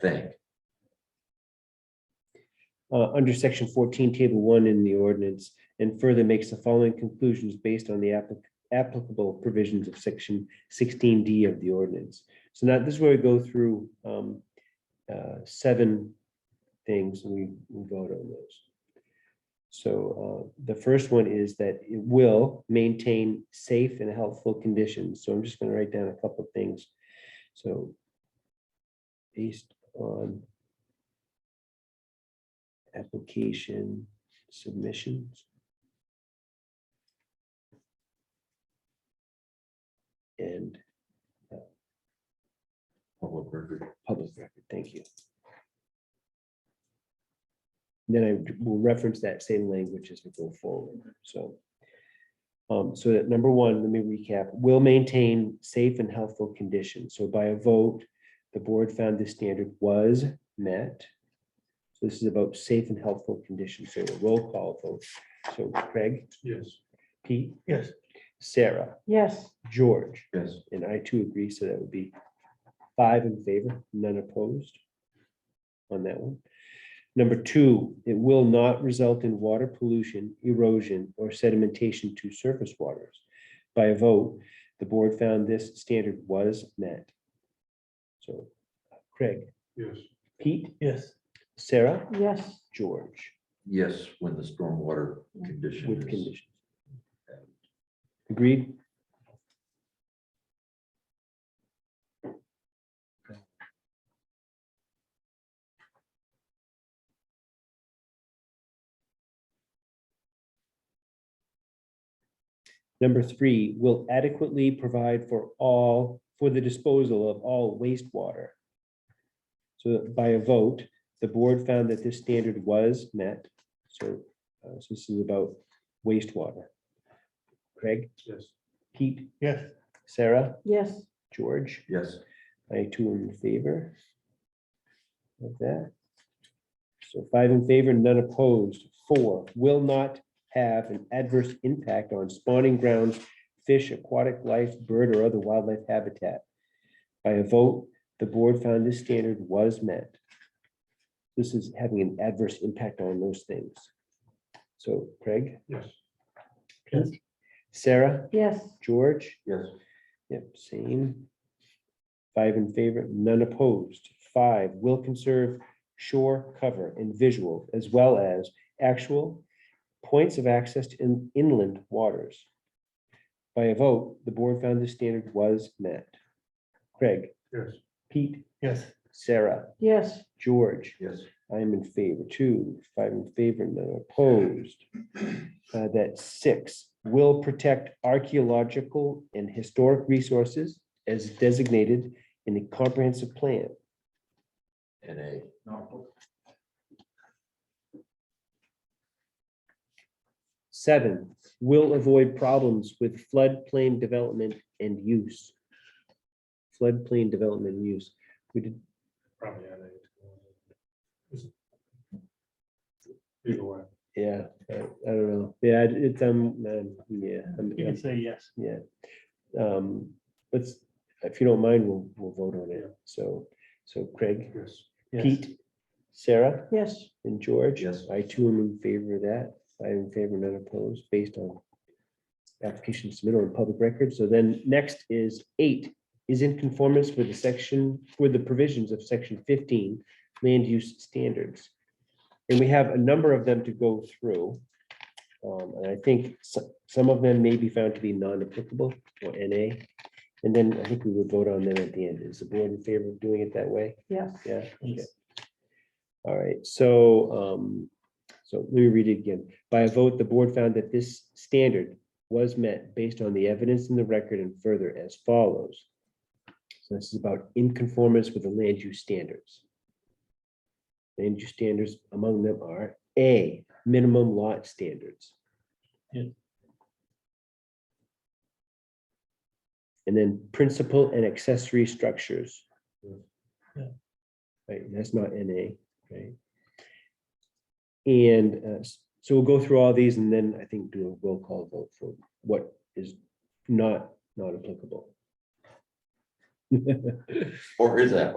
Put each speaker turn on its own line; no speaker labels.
think.
uh, under section fourteen, table one in the ordinance, and further makes the following conclusions based on the applic- applicable provisions of section sixteen D of the ordinance. So now this is where we go through um, uh, seven things and we we vote on those. So uh, the first one is that it will maintain safe and healthful conditions. So I'm just going to write down a couple of things. So based on application submissions. And
Public record.
public record, thank you. Then I will reference that same language as we go forward, so. Um, so that number one, let me recap, will maintain safe and healthful conditions, so by a vote, the board found this standard was met. So this is about safe and healthful conditions, so a roll call vote, so Craig,
Yes.
Pete,
Yes.
Sarah,
Yes,
George.
Yes.
And I too agree, so that would be five in favor, none opposed on that one. Number two, it will not result in water pollution, erosion, or sedimentation to surface waters. By a vote, the board found this standard was met. So Craig,
Yes.
Pete,
Yes,
Sarah,
yes,
George,
Yes, when the stormwater condition
with
is.
conditions. Agreed? Number three, will adequately provide for all, for the disposal of all wastewater. So by a vote, the board found that this standard was met. So, uh, so this is about wastewater. Craig,
Yes.
Pete,
yes,
Sarah,
yes,
George,
Yes,
I too am in favor of that. So five in favor, none opposed. Four, will not have an adverse impact on spawning grounds, fish, aquatic life, bird, or other wildlife habitat. By a vote, the board found this standard was met. This is having an adverse impact on those things. So Craig?
Yes.
Pete? Sarah?
yes,
George?
yes,
Yep, same. Five in favor, none opposed. Five, will conserve shore cover and visual as well as actual points of access to in- inland waters. By a vote, the board found the standard was met. Craig?
Yes.
Pete,
yes,
Sarah,
yes,
George?
yes,
I am in favor too, five in favor, none opposed. Uh, That six will protect archaeological and historic resources as designated in the comprehensive plan.
and a.
Seven, will avoid problems with floodplain development and use. Floodplain development and use. We did,
Probably had it. Either way,
yeah, I I don't know. Yeah, it's, um, um, yeah. I'm-
you
I'm-
can say yes.
Yeah. Um, let's, if you don't mind, we'll, we'll vote on it. So, so Craig,
yes,
Yes.
Pete, Sarah
yes,
and George.
Yes.
I too am in favor of that. I am in favor, none opposed, based on application submitted on public record. So then next is eight, is in conformance with the section, with the provisions of section fifteen, land use standards. And we have a number of them to go through. Um, and I think some, some of them may be found to be non-applicable or NA. And then I think we would vote on them at the end. Is the board in favor of doing it that way?
yes,
Yeah. okay. All right, so, um, so let me read it again. By a vote, the board found that this standard was met based on the evidence in the record and further as follows. So this is about in conformance with the land use standards. Land use standards among them are A, minimum lot standards.
Yeah.
And then principal and accessory structures. Right, and that's not NA, right? And uh, s- so we'll go through all these and then I think do a roll call vote for what is not, not applicable.
Or is that?